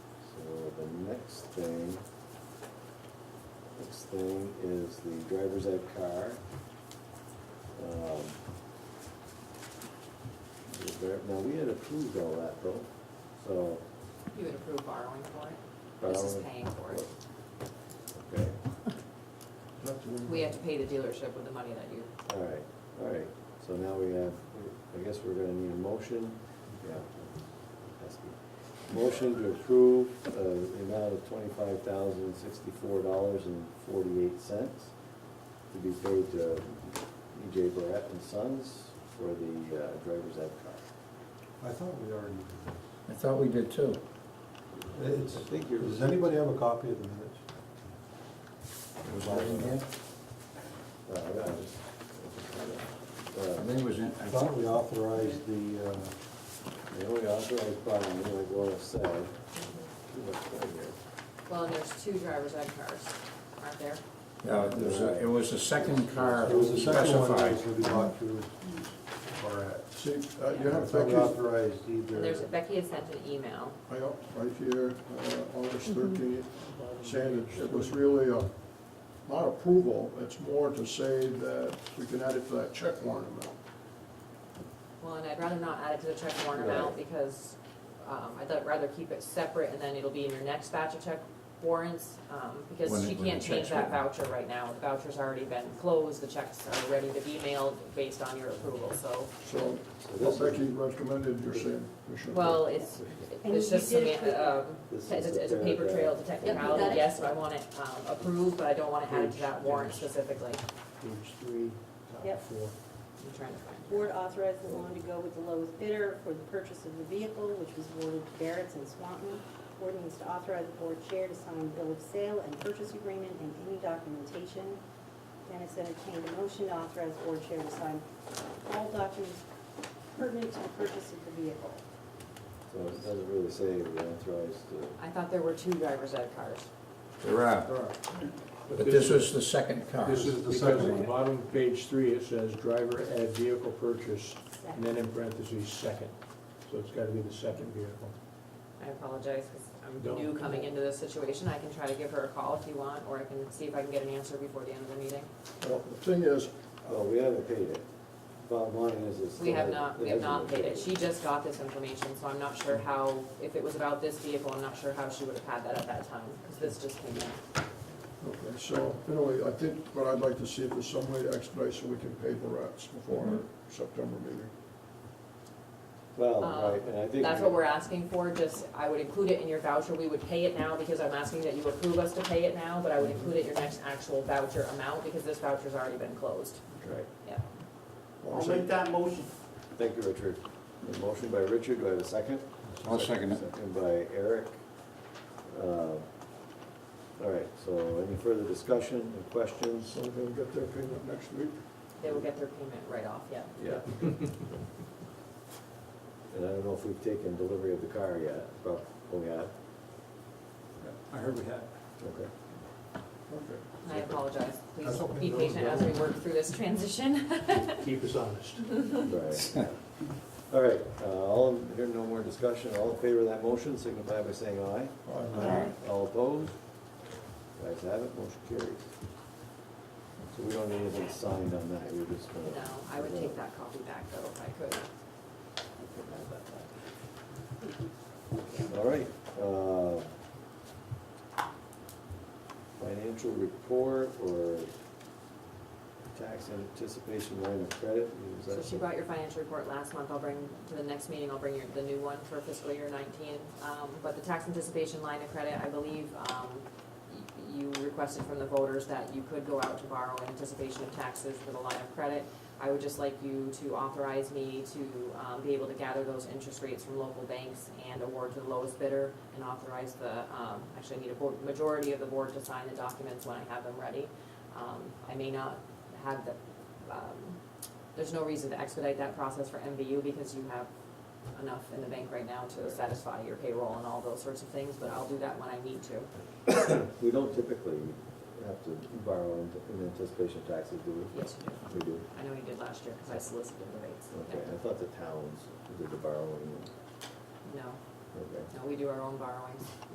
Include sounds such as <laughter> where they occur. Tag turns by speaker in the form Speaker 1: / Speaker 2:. Speaker 1: Next thing, next thing is the driver's ed car. Um, is there- Now, we had approved all that though, so.
Speaker 2: You would approve borrowing for it? This is
Speaker 1: borrowing-
Speaker 2: paying for it.
Speaker 1: Okay,
Speaker 2: We have to pay the dealership with the money that you,
Speaker 1: all right, all right, so now we have, I guess we're gonna need a motion, yeah. that's good. Motion to approve, uh, the amount of twenty-five thousand sixty-four dollars and forty-eight cents to be paid to E.J. Barrett and Sons for the, uh, driver's ed car.
Speaker 3: I thought we already did
Speaker 4: I thought we did too.
Speaker 3: this. It's-
Speaker 1: I think you're-
Speaker 3: Does anybody have a copy of the minutes?
Speaker 4: It was all in here.
Speaker 1: Uh, I got it.
Speaker 4: I
Speaker 1: Uh,
Speaker 4: think it was in,
Speaker 3: I
Speaker 4: I
Speaker 3: thought
Speaker 4: thought,
Speaker 3: we authorized the, uh,
Speaker 1: The only authorized bond, like Laura said, too much right here.
Speaker 2: well, and there's two driver's ed cars, aren't there?
Speaker 4: yeah, it was, a- it was the second car
Speaker 3: there was a second one that
Speaker 4: specified.
Speaker 3: was gonna be bought through Barrett.
Speaker 5: See, uh, you
Speaker 3: I
Speaker 5: have
Speaker 3: thought we
Speaker 5: Becky's,
Speaker 3: authorized either.
Speaker 2: And there's, Becky had sent an email.
Speaker 5: I got right here, uh, August thirteenth, saying that it was really a, not approval, it's more to say that we can add it to that check warrant amount.
Speaker 2: Well, and I'd rather not add it to the check warrant amount because um, I'd let- rather keep it separate and then it'll be in your next batch of check warrants. um, Because
Speaker 4: When
Speaker 2: she
Speaker 4: it- when
Speaker 2: can't
Speaker 4: the
Speaker 2: change
Speaker 4: check's
Speaker 2: that
Speaker 4: written.
Speaker 2: voucher right now. The voucher's already been closed, the checks are ready to be mailed based on your approval, so.
Speaker 5: So
Speaker 1: So
Speaker 5: what
Speaker 1: this
Speaker 5: Becky
Speaker 1: is,
Speaker 5: recommended, you're saying, Commissioner.
Speaker 2: Well, it's,
Speaker 6: And
Speaker 2: it's
Speaker 6: you
Speaker 2: just,
Speaker 6: did
Speaker 2: seman- um,
Speaker 1: This
Speaker 2: it's
Speaker 1: is
Speaker 2: a- it's a
Speaker 1: the
Speaker 2: paper trail to
Speaker 6: got
Speaker 2: technicality,
Speaker 6: it.
Speaker 2: yes, but I want it um, approved, but I don't want to add it to that warrant specifically.
Speaker 1: page three, top
Speaker 6: Yep.
Speaker 1: four.
Speaker 2: I'm trying to find.
Speaker 6: Board authorized the loan to go with the lowest bidder for the purchase of the vehicle, which was awarded to Barrettts and Swanton. Ordinance to authorize the board chair to sign bill of sale and purchase agreement and any documentation. Dennis entertained a motion to authorize the board chair to sign all documents pertinent to the purchase of the vehicle.
Speaker 1: So it doesn't really say we authorized uh, to.
Speaker 2: I thought there were two driver's ed cars.
Speaker 4: There are, but this was the second car.
Speaker 3: This is the second one.
Speaker 7: Bottom of page three, it says driver add vehicle purchase, and then
Speaker 6: Second.
Speaker 7: in parentheses, second. So it's gotta be the second vehicle.
Speaker 2: I apologize, because
Speaker 7: Don't.
Speaker 2: I'm new coming into this situation. I can try to give her a call if you want, or I can see if I can get an answer before the end of the meeting.
Speaker 5: Well, the thing is,
Speaker 1: Oh, we haven't paid it. Bottom line is it's.
Speaker 2: We have
Speaker 1: still-
Speaker 2: not, we
Speaker 1: it Mm. hasn't
Speaker 2: have not
Speaker 1: been
Speaker 2: paid it. She just got this information, so I'm not sure how, if it was about this vehicle, I'm not sure how she would have had that at that time, because this just came in.
Speaker 5: okay, so anyway, I think what I'd like to see if there's some way to expedite so we can pay the rats before our September meeting.
Speaker 1: Well,
Speaker 2: Um,
Speaker 1: right, and I think.
Speaker 2: That's what we're asking for, just, I would include it in your voucher, we would pay it now, because I'm asking that you approve us to pay it now, but I would include it in your next actual voucher amount, because this voucher's already been closed.
Speaker 1: Right.
Speaker 2: Yeah.
Speaker 5: I'll make that.
Speaker 1: Thank you, Richard. A motion by Richard, do I have a second?
Speaker 4: I'll second it.
Speaker 1: Second by Eric. Uh, All right, so any further discussion or questions?
Speaker 5: So they'll get their payment next week.
Speaker 2: They will get their payment right off, yeah.
Speaker 1: Yeah. And I don't know if we've taken delivery of the car yet, but oh, we have.
Speaker 7: I heard we had.
Speaker 1: Okay.
Speaker 5: Okay.
Speaker 2: I apologize, please
Speaker 3: That's okay.
Speaker 2: be patient as we work through this transition. <laughs>
Speaker 7: Keep us honest.
Speaker 1: Right. <laughs> All right, uh, all, here no more discussion, all in favor of that motion, signify by saying aye.
Speaker 5: Aye.
Speaker 1: All opposed? Guys have it, motion carries. So we don't need anything signed on that, we're just gonna.
Speaker 2: No, I would take that copy back though, if I could.
Speaker 1: All right, uh, financial report or tax anticipation line of credit, is
Speaker 2: So
Speaker 1: that?
Speaker 2: she brought your financial report last month, I'll bring, to the next meeting, I'll bring your, the new one for fiscal year nineteen. Um, but the tax anticipation line of credit, I believe, um, y- you requested from the voters that you could go out to borrow in anticipation of taxes for the line of credit. I would just like you to authorize me to, um, be able to gather those interest rates from local banks and award to the lowest bidder and authorize the, um, actually I need a bo- majority of the board to sign the documents when I have them ready. Um, I may not have the, um, there's no reason to expedite that process for MVU because you have enough in the bank right now to satisfy your payroll and all those sorts of things, but I'll do that when I need to.
Speaker 1: We don't typically have to borrow in in anticipation of taxes, do we?
Speaker 2: Yes, you do.
Speaker 1: We do.
Speaker 2: I know you did last year because I solicited the rates.
Speaker 1: Okay, I thought the towns did the borrowing.
Speaker 2: No,
Speaker 1: Okay.
Speaker 2: no, we do our own borrowings.